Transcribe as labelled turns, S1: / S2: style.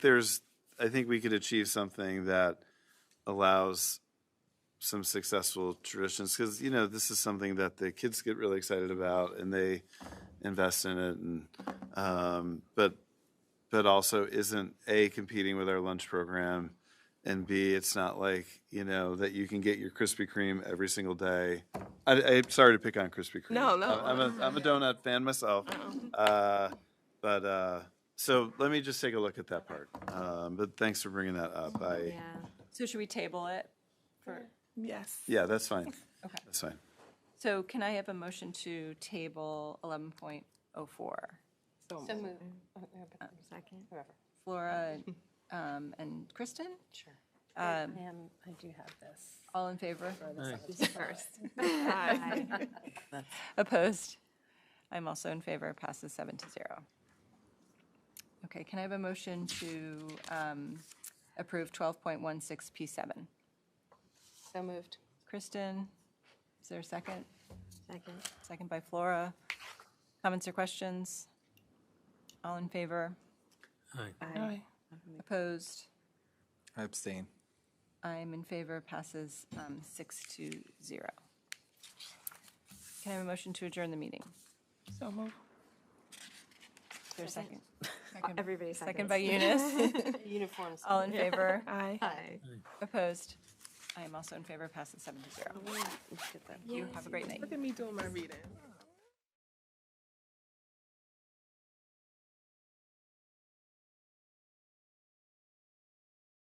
S1: there's, I think we could achieve something that allows some successful traditions because you know this is something that the kids get really excited about and they invest in it and um, but but also isn't a competing with our lunch program and b it's not like you know that you can get your krispy kreme every single day I, i'm sorry to pick on krispy kreme
S2: No, no.
S1: i'm a, I'm a donut fan myself uh, but uh, so let me just take a look at that part um, but thanks for bringing that up i
S3: Yeah. So should we table it? For,
S2: Yes.
S1: yeah that's fine
S3: Okay.
S1: that's fine
S3: so can I have a motion to table 11.04?
S4: So Oh, move. Uh, Second.
S3: Flora um, and Kristen,
S4: Sure.
S3: um,
S4: Ma'am, I do have this.
S3: all in favor?
S4: First.
S2: Aye.
S3: Opposed? I'm also in favor, passes seven to zero. Okay, can I have a motion to um, approve 12.16 P7?
S4: So moved.
S3: Kristen, is there a second?
S4: Second.
S3: Second by Flora. Comments or questions? All in favor?
S2: Aye.
S3: Opposed?
S5: I abstain.
S3: I'm in favor, passes um, six to zero. Can I have a motion to adjourn the meeting?
S2: So moved.
S3: Is there a second?
S4: Everybody second.
S3: Second by Eunice.
S4: Uniforms.
S3: All in favor?
S2: Aye.
S4: Aye.
S3: Opposed? I am also in favor, passes seven to zero. You have a great night.
S2: Look at me doing my reading.